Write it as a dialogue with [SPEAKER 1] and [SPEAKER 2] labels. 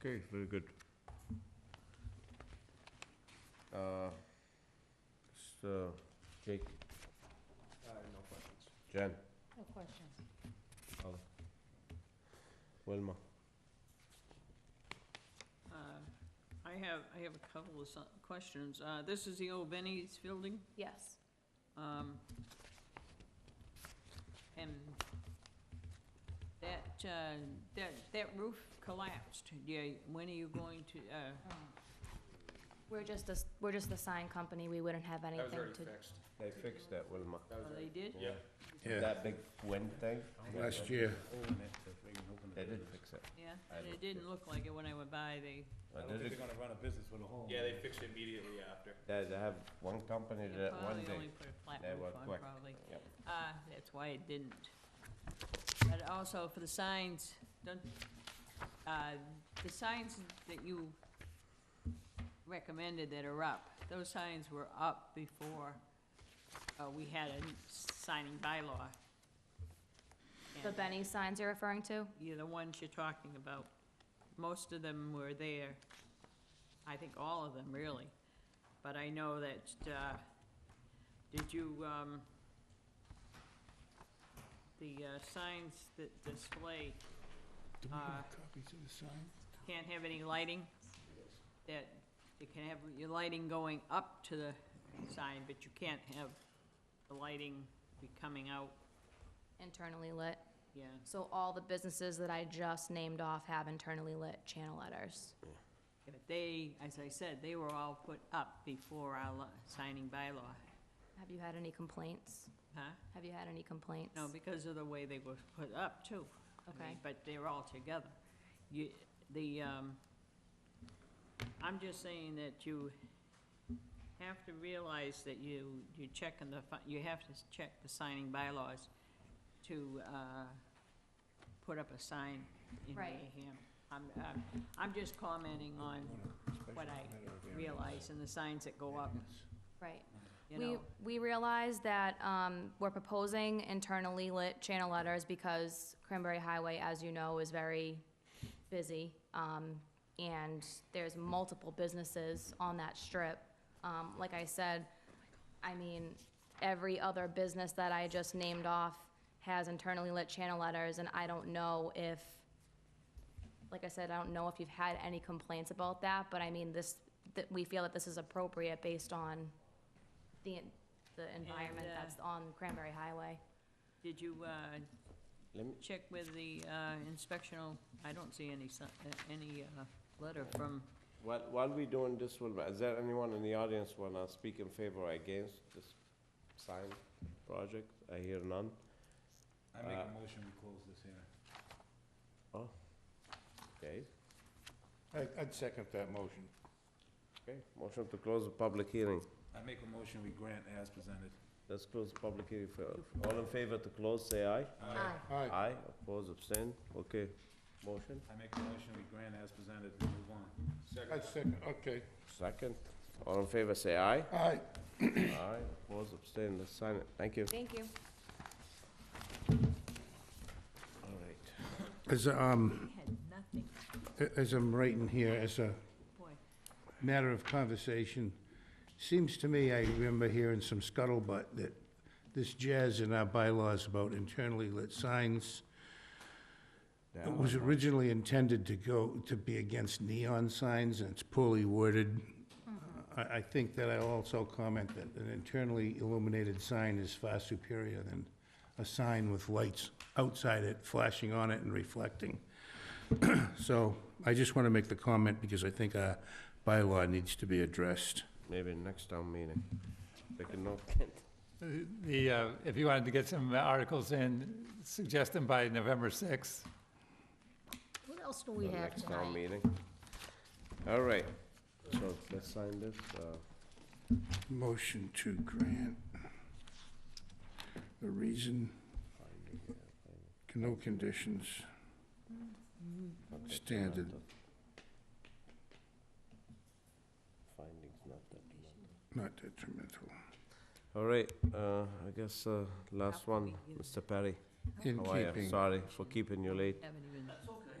[SPEAKER 1] Okay, very good. Uh, So, Jake,
[SPEAKER 2] no questions.
[SPEAKER 1] Jen,
[SPEAKER 3] No questions.
[SPEAKER 1] Wilma,
[SPEAKER 4] Uh, I have, I have a couple of so- questions. Uh, This is the old Benny's building,
[SPEAKER 3] Yes.
[SPEAKER 4] um, and that, uh, that, that roof collapsed. Yeah, when are you going to, uh,
[SPEAKER 3] Um, We're just a, s- we're just a sign company, we wouldn't have
[SPEAKER 2] That
[SPEAKER 3] anything
[SPEAKER 2] was already
[SPEAKER 3] to.
[SPEAKER 2] fixed.
[SPEAKER 1] they fixed that, Wilma.
[SPEAKER 2] That was
[SPEAKER 4] oh, they
[SPEAKER 2] already.
[SPEAKER 4] did?
[SPEAKER 2] Yeah.
[SPEAKER 5] Yeah,
[SPEAKER 1] That big wind thing?
[SPEAKER 5] last year.
[SPEAKER 1] They did fix it.
[SPEAKER 4] Yeah,
[SPEAKER 1] I
[SPEAKER 4] and it
[SPEAKER 1] looked
[SPEAKER 4] didn't look like it when I went by, they,
[SPEAKER 1] I did it,
[SPEAKER 5] gonna run a business with a home.
[SPEAKER 2] Yeah, they fixed it immediately after.
[SPEAKER 1] they they have one company
[SPEAKER 4] they
[SPEAKER 1] that one
[SPEAKER 4] probably
[SPEAKER 1] day,
[SPEAKER 4] only put a flat
[SPEAKER 1] they
[SPEAKER 4] roof
[SPEAKER 1] were
[SPEAKER 4] on,
[SPEAKER 1] quick.
[SPEAKER 4] probably.
[SPEAKER 1] Yep.
[SPEAKER 4] Uh, that's why it didn't. But also for the signs, don't, uh, the signs that you recommended that are up, those signs were up before, uh, we had a signing bylaw.
[SPEAKER 3] The
[SPEAKER 4] And
[SPEAKER 3] Benny signs you're referring to?
[SPEAKER 4] You're the ones you're talking about. Most of them were there. I think all of them, really. But I know that, uh, did you, um, the uh, signs that display
[SPEAKER 5] Do
[SPEAKER 4] we have Uh,
[SPEAKER 5] copies of the sign?
[SPEAKER 4] can't have any lighting? That you can have your lighting going up to the sign, but you can't have the lighting be coming out,
[SPEAKER 3] Internally lit.
[SPEAKER 4] yeah.
[SPEAKER 3] So all the businesses that I just named off have internally lit channel letters.
[SPEAKER 4] But they, as I said, they were all put up before our lo- signing bylaw,
[SPEAKER 3] Have you had any complaints?
[SPEAKER 4] huh?
[SPEAKER 3] Have you had any complaints?
[SPEAKER 4] No, because of the way they were put up too. I mean,
[SPEAKER 3] Okay.
[SPEAKER 4] But they're all together. You, the, um, I'm just saying that you have to realize that you, you check in the, fi- you have to s- check the signing bylaws to, uh, put up a sign in
[SPEAKER 3] Right.
[SPEAKER 4] Wareham. I'm, I'm, I'm just commenting on what I realize and the signs that go up,
[SPEAKER 3] Right.
[SPEAKER 4] you
[SPEAKER 3] We,
[SPEAKER 4] know.
[SPEAKER 3] we realize that, um, we're proposing internally lit channel letters because Cranberry Highway, as you know, is very busy. Um, and there's multiple businesses on that strip. Um, like I said, I mean, every other business that I just named off has internally lit channel letters, and I don't know if, like I said, I don't know if you've had any complaints about that, but I mean, this, that, we feel that this is appropriate based on the, en- the environment
[SPEAKER 4] uh,
[SPEAKER 3] that's on Cranberry Highway.
[SPEAKER 4] Did you, uh,
[SPEAKER 1] Let me,
[SPEAKER 4] check with the uh, inspectional, I don't see any, si- uh, any uh, letter from,
[SPEAKER 1] while, while we doing this, Wilma, is there anyone in the audience wanna speak in favor or against this sign project? I hear none.
[SPEAKER 5] I make
[SPEAKER 1] Uh,
[SPEAKER 5] a motion, we close this hearing.
[SPEAKER 1] Okay,
[SPEAKER 6] I- I'd second that motion.
[SPEAKER 1] okay. Motion to close the public hearing.
[SPEAKER 5] I make a motion, we grant as presented.
[SPEAKER 1] Let's close the public hearing. for- All in favor to close, say aye.
[SPEAKER 6] Aye.
[SPEAKER 1] Aye, oppose, abstain, okay. Motion,
[SPEAKER 5] I make a motion, we grant as presented, move on.
[SPEAKER 6] I'd second, okay.
[SPEAKER 1] second. All in favor, say aye.
[SPEAKER 6] Aye.
[SPEAKER 1] Aye, oppose, abstain, let's sign it, thank you.
[SPEAKER 3] Thank you.
[SPEAKER 1] All right.
[SPEAKER 6] As, um,
[SPEAKER 4] we had nothing,
[SPEAKER 6] a- as I'm writing here, as a
[SPEAKER 4] boy.
[SPEAKER 6] matter of conversation, seems to me, I remember hearing some scuttlebutt that this jazz in our bylaws about internally lit signs It was originally intended to go, to be against neon signs, and it's poorly worded. I, I think that I'll also comment that an internally illuminated sign is far superior than a sign with lights outside it flashing on it and reflecting. So I just want to make the comment because I think our bylaw needs to be addressed.
[SPEAKER 1] Maybe next town meeting. Take a note.
[SPEAKER 7] The, uh, if you wanted to get some articles in, suggest them by November 6th.
[SPEAKER 8] What else do we have
[SPEAKER 1] Next town
[SPEAKER 8] tonight?
[SPEAKER 1] meeting. All right, so let's sign this, uh,
[SPEAKER 6] Motion to grant. The reason, no conditions.
[SPEAKER 1] okay,
[SPEAKER 6] Standard.
[SPEAKER 1] not the- Findings not that.
[SPEAKER 6] Not detrimental.
[SPEAKER 1] All right, uh, I guess, uh, last
[SPEAKER 4] How can
[SPEAKER 1] one,
[SPEAKER 4] we give-
[SPEAKER 1] Mr. Perry.
[SPEAKER 6] In
[SPEAKER 1] How are you?
[SPEAKER 6] keeping.
[SPEAKER 1] Sorry for keeping you late.
[SPEAKER 4] Haven't even,